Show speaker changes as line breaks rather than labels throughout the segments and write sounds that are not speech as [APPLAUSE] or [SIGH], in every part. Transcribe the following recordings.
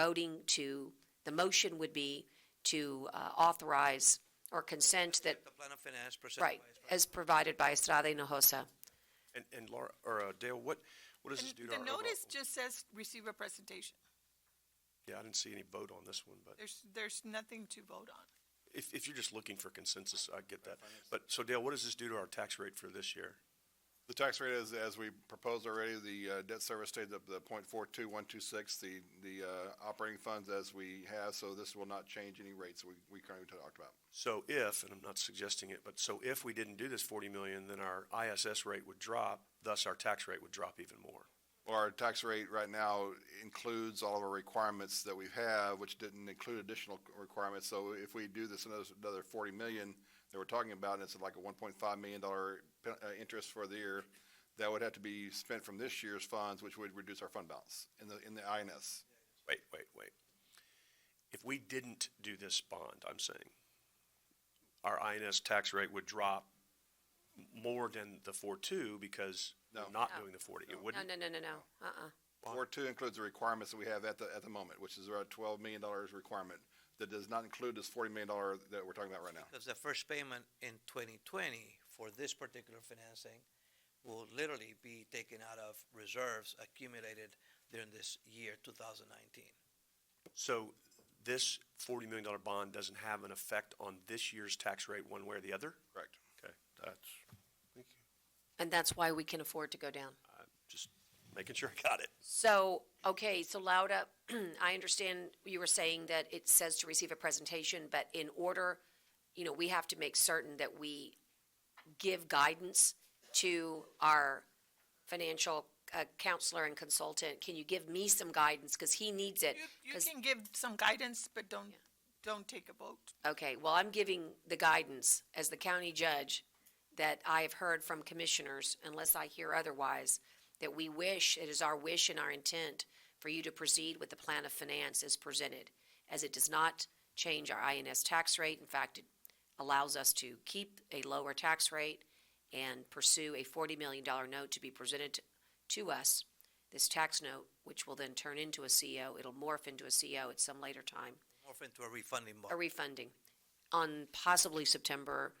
voting to, the motion would be to uh, authorize or consent that,
The plan of finance presented
right, as provided by Estrada Hinojosa.
And, and Laura, or uh, Dale, what, what does this do
And
to our?
The
overall-
notice just says receive a presentation.
Yeah, I didn't see any vote on this one, but
There's, there's nothing to vote on.
if, if you're just looking for consensus, I get that. But, so Dale, what does this do to our tax rate for this year?
The tax rate is, as we proposed already, the uh, debt service stays at the point four two one two six, the, the uh, operating funds as we have, so this will not change any rates we, we currently talked about.
So if, and I'm not suggesting it, but so if we didn't do this forty million, then our ISS rate would drop, thus our tax rate would drop even more.
Our tax rate right now includes all of our requirements that we have, which didn't include additional requirements. So if we do this another, another forty million that we're talking about, and it's like a one point five million dollar uh, interest for the year, that would have to be spent from this year's funds, which would reduce our fund balance in the, in the INS.
Wait, wait, wait. If we didn't do this bond, I'm saying, our INS tax rate would drop m- more than the four-two because
No.
we're not doing the forty. It
No,
wouldn't,
no, no, no, no, uh-uh.
Four two includes the requirements that we have at the, at the moment, which is around twelve million dollars requirement. That does not include this forty million dollar that we're talking about right now.
because the first payment in 2020 for this particular financing will literally be taken out of reserves accumulated during this year 2019.
So this forty million dollar bond doesn't have an effect on this year's tax rate one way or the other?
Correct.
Okay, that's, thank you.
And that's why we can afford to go down.
I'm just making sure I got it.
So, okay, so Lauda, [CLEARS THROAT] I understand you were saying that it says to receive a presentation, but in order, you know, we have to make certain that we give guidance to our financial uh, counselor and consultant. Can you give me some guidance? Because he needs it.
You, you
'Cause-
can give some guidance, but don't, don't take a vote.
Okay, well, I'm giving the guidance as the county judge that I have heard from commissioners, unless I hear otherwise, that we wish, it is our wish and our intent for you to proceed with the plan of finance as presented, as it does not change our INS tax rate. In fact, it allows us to keep a lower tax rate and pursue a $40 million note to be presented to us, this tax note, which will then turn into a CO. It'll morph into a CO at some later time
Morph into a refunding bond.
a refunding on possibly September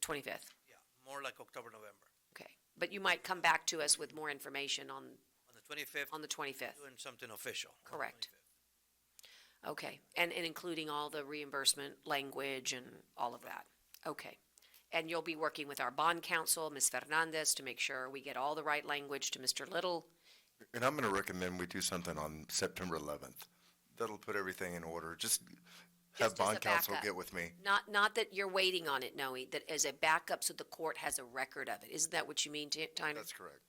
25th.
Yeah, more like October, November.
Okay. But you might come back to us with more information on,
On the 25th,
on the 25th.
doing something official. on the
Correct.
25th.
Okay. And, and including all the reimbursement language and all of that. Okay. And you'll be working with our bond counsel, Ms. Fernandez, to make sure we get all the right language to Mr. Little.
And I'm going to recommend we do something on September 11th. That'll put everything in order. Just
Just as
have
a
bond counsel
backup.
get with me.
Not, not that you're waiting on it, Noe, that as a backup so the court has a record of it. Isn't that what you mean, Ti- Tyner?
That's correct.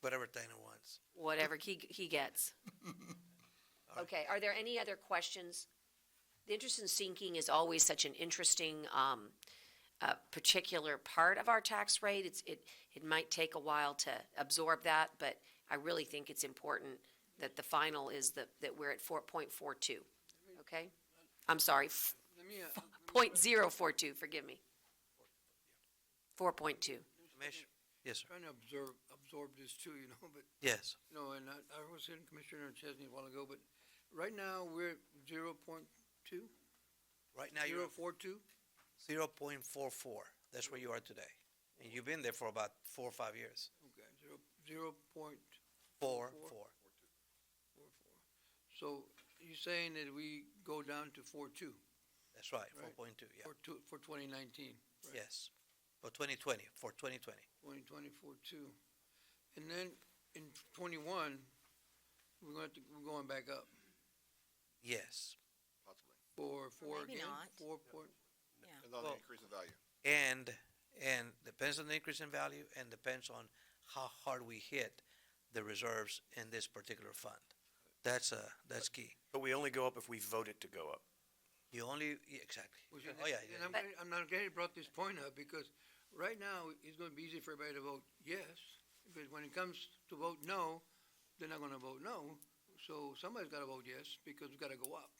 Whatever Dana wants.
whatever he, he gets. Okay, are there any other questions? The interest in sinking is always such an interesting, um, uh, particular part of our tax rate. It's, it, it might take a while to absorb that, but I really think it's important that the final is that, that we're at four point four two, okay? I'm sorry, f-
Let me, uh,
point zero four two, forgive me. Four point two.
Commissioner, yes, sir.
trying to absorb, absorb this too, you know, [LAUGHS] but,
Yes,
you know, and I, I was in Commissioner Chesney a while ago, but right now, we're zero point two,
right now you're
zero
at
four two?
0.44. That's where you are today. And you've been there for about four or five years.
Okay, zero, zero point
Four,
Four.
four.
four four. So you're saying that we go down to four two,
That's right,
Right.
4.2, yeah.
for two, for twenty nineteen?
Yes, for 2020, for 2020.
Twenty twenty four two. And then in twenty-one, we're going to, we're going back up
Yes.
for four
maybe
again?
not.
Four point,
It's on
Well-
the increase in value.
And, and depends on the increase in value and depends on how hard we hit the reserves in this particular fund. That's, uh, that's key.
But we only go up if we vote it to go up.
You only, yeah, exactly.
Well, see,
Oh, yeah,
and-
yeah,
And I'm,
yeah.
glad- I'm not glad you brought this point up, because right now, it's gonna be easy for everybody to vote yes, but when it comes to vote no, they're not gonna vote no, so somebody's gotta vote yes, because we gotta go up.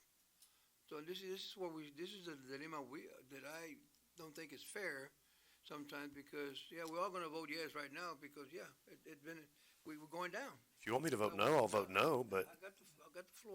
So this is, this is what we, this is the dilemma we, that I don't think is fair sometimes, because, yeah, we're all gonna vote yes right now, because, yeah, it, it's been, we, we're going down.
If you want me to vote no, I'll vote no, but
I got the